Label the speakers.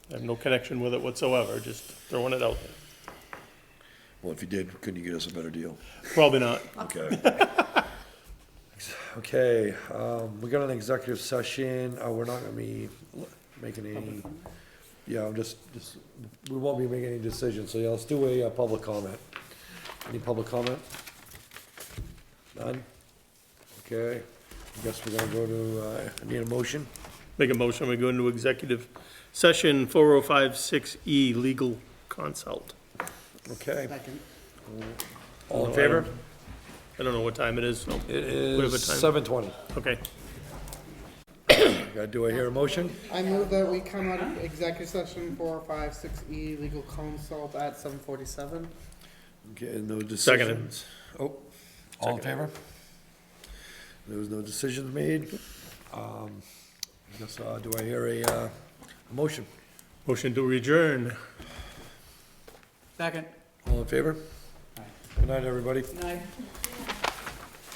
Speaker 1: I have no connection with it whatsoever, just throwing it out there.
Speaker 2: Well, if you did, couldn't you get us a better deal?
Speaker 1: Probably not.
Speaker 2: Okay.
Speaker 3: Okay, um, we got an executive session, uh, we're not gonna be making any, yeah, I'm just, just, we won't be making any decisions, so yeah, let's do a, uh public comment. Any public comment? None? Okay, I guess we're gonna go to, uh, I need a motion,
Speaker 1: Make a motion, we go into executive session 4056E, E, legal consult.
Speaker 3: okay,
Speaker 4: Second.
Speaker 3: all in favor?
Speaker 1: I don't know what time it is, so.
Speaker 3: It
Speaker 1: Whatever
Speaker 3: is
Speaker 1: time.
Speaker 3: seven twenty,
Speaker 1: Okay.
Speaker 3: do I hear a motion?
Speaker 4: I move that we come out of executive session four, oh five, six E, legal consult at seven forty-seven.
Speaker 3: Okay, no
Speaker 1: Seconded.
Speaker 3: decisions. Oh, all in favor? There was no decisions made. Um, I guess, uh, do I hear a, uh, a motion?
Speaker 1: Motion to adjourn.
Speaker 4: Second.
Speaker 3: All in favor? Good night, everybody.
Speaker 4: Aye.